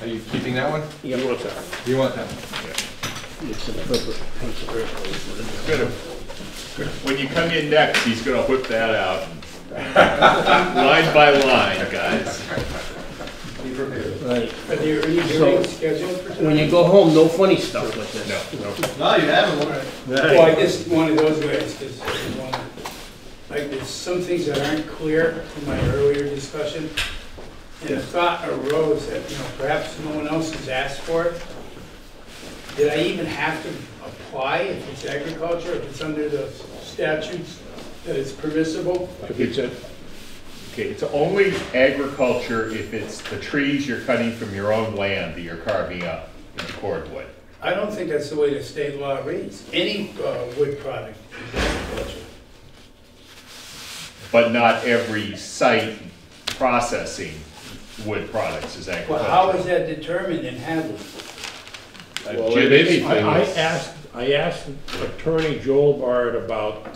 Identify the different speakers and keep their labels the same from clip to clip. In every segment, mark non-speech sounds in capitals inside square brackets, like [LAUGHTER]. Speaker 1: that one?
Speaker 2: You want that?
Speaker 1: You want that one?
Speaker 2: It's in the purple.
Speaker 3: Gonna- When you come in next, he's gonna whip that out.
Speaker 4: [LAUGHS]
Speaker 3: Line by line, guys.
Speaker 2: Right.
Speaker 4: Are you, are you
Speaker 2: So-
Speaker 4: doing scheduled for
Speaker 2: When
Speaker 4: tonight?
Speaker 2: you go home, no funny stuff like this.
Speaker 3: No, no.
Speaker 1: No, you haven't, all right.
Speaker 4: Well, I just one of those ways, because, like, there's some things that aren't clear from my earlier discussion. And the thought arose that, you know, perhaps no one else has asked for it. Did I even have to apply if it's agriculture, if it's under the statutes that it's permissible?
Speaker 2: If it's a-
Speaker 3: Okay, it's only agriculture if it's the trees you're cutting from your own land that you're carving up in cordwood.
Speaker 4: I don't think that's the way the state law reads. Any uh, wood product is agriculture.
Speaker 3: But not every site processing wood products is
Speaker 4: Well, how is
Speaker 3: agriculture. Uh,
Speaker 4: that determined in Hadley?
Speaker 5: Well,
Speaker 3: Jim,
Speaker 5: it is-
Speaker 3: anything
Speaker 5: I I
Speaker 3: is-
Speaker 5: asked, I asked Attorney Joel Bard about,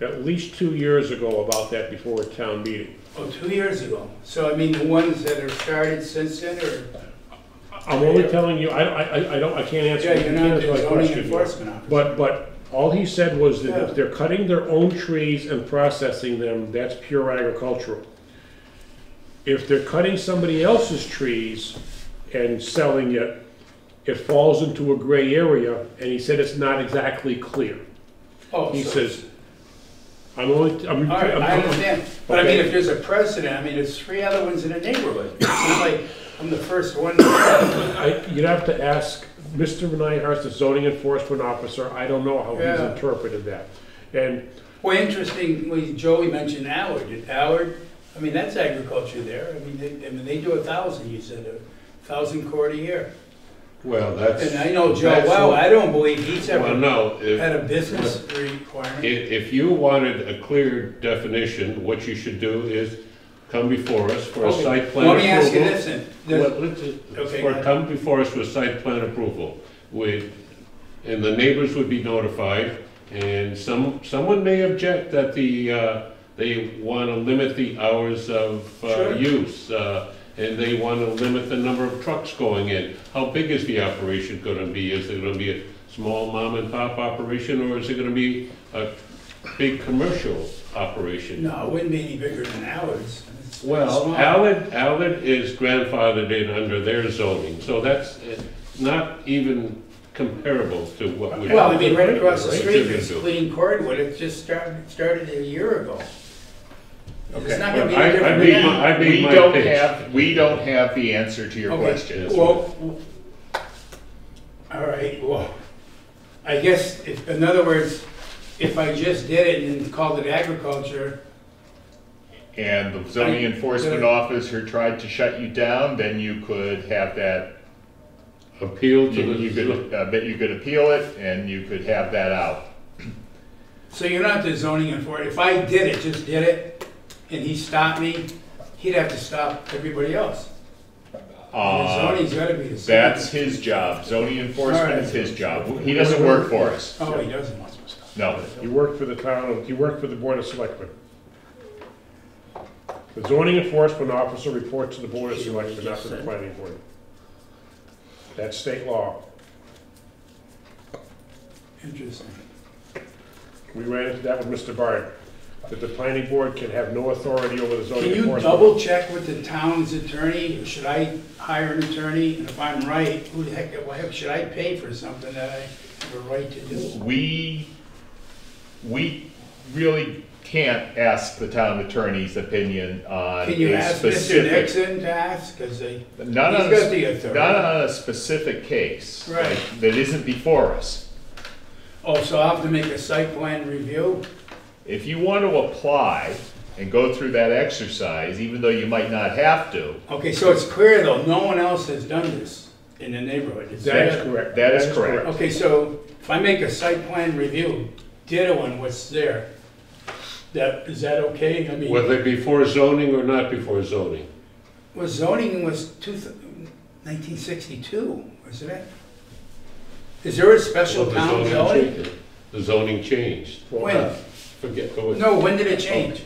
Speaker 5: at least two years ago about that before a town meeting.
Speaker 4: Oh, two years ago. So I mean, the ones that have started since then, or,
Speaker 5: I'm only telling you, I, I, I- I don't, I can't answer,
Speaker 4: yeah,
Speaker 5: I
Speaker 4: you're
Speaker 5: can't
Speaker 4: not
Speaker 5: answer
Speaker 4: the
Speaker 5: my
Speaker 4: zoning
Speaker 5: question. here.
Speaker 4: enforcement officer.
Speaker 5: But, but all he said was that
Speaker 4: Yeah.
Speaker 5: if they're cutting their own trees and processing them, that's pure agricultural. If they're cutting somebody else's trees and selling it, it falls into a gray area, and he said it's not exactly clear.
Speaker 4: Oh,
Speaker 5: He
Speaker 4: so-
Speaker 5: says, I'm only, I'm.
Speaker 4: All right, I
Speaker 5: I'm-
Speaker 4: understand. But I mean,
Speaker 5: Okay.
Speaker 4: if there's a precedent, I mean, there's three other ones in the neighborhood. It's not like I'm the first one. Yeah,
Speaker 5: I- You'd have to ask Mr. Nyhurst, the zoning enforcement officer, I don't know how he's
Speaker 4: Yeah.
Speaker 5: interpreted that. And,
Speaker 4: Well, interestingly, Joey mentioned Howard. Did Howard, I mean, that's agriculture there. I mean, they, I mean, they do a thousand, you said, a thousand cord a year.
Speaker 6: Well, that's.
Speaker 4: And I know Joe
Speaker 6: that's
Speaker 4: well,
Speaker 6: what-
Speaker 4: I don't believe he's
Speaker 6: Well,
Speaker 4: ever
Speaker 6: no,
Speaker 4: had
Speaker 6: if,
Speaker 4: a business requirement.
Speaker 6: if, if you wanted a clear definition, what you should do is come before us for a
Speaker 4: Okay.
Speaker 6: site plan approval.
Speaker 4: Let me ask you this then. There's-
Speaker 6: Well, let's just-
Speaker 4: Okay, go
Speaker 6: Or
Speaker 4: ahead.
Speaker 6: come before us with site plan approval, with, and the neighbors would be notified, and some, someone may object that the, uh, they wanna limit the hours of, uh,
Speaker 4: Sure.
Speaker 6: use, uh, and they wanna limit the number of trucks going in. How big is the operation gonna be? Is it gonna be a small mom and pop operation, or is it gonna be a big commercial operation?
Speaker 4: No, it wouldn't be any bigger than ours. It's
Speaker 6: Well,
Speaker 4: small.
Speaker 6: Allen, Allen is grandfathered in under their zoning, so that's eh, not even comparable to what we.
Speaker 4: Well, I mean, right across the
Speaker 6: Right,
Speaker 4: street,
Speaker 6: they're
Speaker 4: there's
Speaker 6: gonna do.
Speaker 4: clean cordwood, it just started, started a year ago. It's not gonna be
Speaker 6: I- I
Speaker 4: any different
Speaker 6: made
Speaker 4: now.
Speaker 6: my- I made
Speaker 3: We
Speaker 6: my
Speaker 3: don't
Speaker 6: pitch.
Speaker 3: have, we don't have the answer to your
Speaker 4: Okay,
Speaker 3: question.
Speaker 4: Well, w- all right, well, I guess, if, in other words, if I just did it and called it agriculture,
Speaker 3: and the zoning enforcement officer tried to shut you down, then you could have that,
Speaker 6: Appeal
Speaker 3: you you
Speaker 6: to
Speaker 3: could, I bet you could appeal it, and you could have that out.
Speaker 4: so you're not the zoning enforcement, if I did it, just did it, and he stopped me, he'd have to stop everybody else. And The
Speaker 3: Uh,
Speaker 4: zoning's gotta be the same.
Speaker 3: That's his job, zoning enforcement is his job, he doesn't work for us,
Speaker 4: Oh, he doesn't want
Speaker 3: no.
Speaker 5: You work for the town, you work for the Board of Selectmen. The zoning enforcement officer reports to the Board of Selectmen, not to the planning board. That's state law.
Speaker 4: it. Interesting.
Speaker 5: We ran into that with Mr. Bard, that the planning board can have no authority over the
Speaker 3: Oh,
Speaker 5: zoning
Speaker 4: Can you
Speaker 5: enforcement.
Speaker 4: double check with the town's attorney? Should I hire an attorney? And if I'm right, who the heck, why should I pay for something that I have a right to do?
Speaker 3: We, we really can't ask the town attorney's opinion on
Speaker 4: Can you
Speaker 3: a
Speaker 4: ask Mr.
Speaker 3: specific-
Speaker 4: Nixon to ask, because they,
Speaker 3: Not on, a
Speaker 4: He's got the
Speaker 3: s-
Speaker 4: authority.
Speaker 3: not on a specific case.
Speaker 4: Right.
Speaker 3: like, That isn't before us.
Speaker 4: oh, so I'll have to make a site plan review?
Speaker 3: If you want to apply and go through that exercise, even though you might not have to,
Speaker 4: Okay, so it's clear though, no one else has done this in the neighborhood. Is
Speaker 5: That is
Speaker 4: that-
Speaker 5: correct.
Speaker 3: That is correct.
Speaker 4: Okay, so if I make a site plan review, ditto on what's there, that, is that okay? I mean.
Speaker 6: whether before zoning or not before zoning.
Speaker 4: Well, zoning was two, th- 1962, wasn't it? Is there a special
Speaker 6: Well, the
Speaker 4: town zoning?
Speaker 6: changed. The zoning changed.
Speaker 4: When?
Speaker 6: Forget, go ahead.
Speaker 4: No, when did it change?